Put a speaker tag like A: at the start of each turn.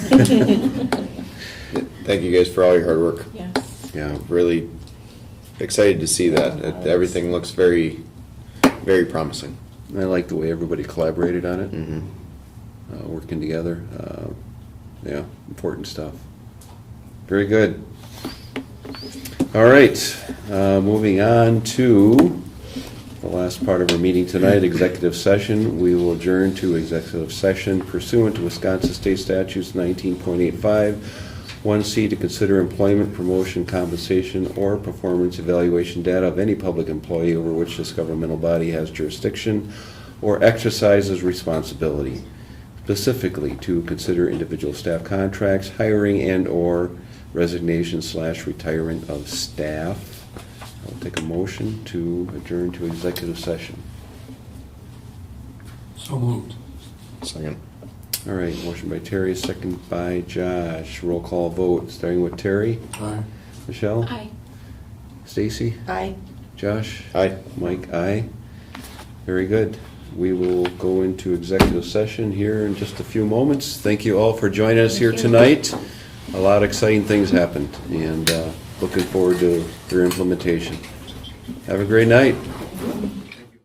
A: Thank you guys for all your hard work.
B: Yes.
A: Yeah, really excited to see that. It- Everything looks very, very promising.
C: I like the way everybody collaborated on it,
A: Mm-hmm.
C: uh, working together. Uh, yeah, important stuff. Very good. All right, uh, moving on to the last part of our meeting tonight, executive session. We will adjourn to executive session pursuant to Wisconsin State Statutes 19.85, 1C to consider employment, promotion, compensation, or performance evaluation data of any public employee over which this governmental body has jurisdiction or exercises responsibility, specifically to consider individual staff contracts, hiring and/or resignation slash retirement of staff. I'll take a motion to adjourn to executive session.
D: So moved.
A: Second.
C: All right, motion by Terry, second by Josh. Roll call vote, starting with Terry.
D: Aye.
C: Michelle?
B: Aye.
C: Stacy?
B: Aye.
C: Josh?
A: Aye.
C: Mike, aye. Very good. We will go into executive session here in just a few moments. Thank you all for joining us here
B: Thank you.
C: tonight. A lot of exciting things happened, and uh, looking forward to their implementation. Have a great night.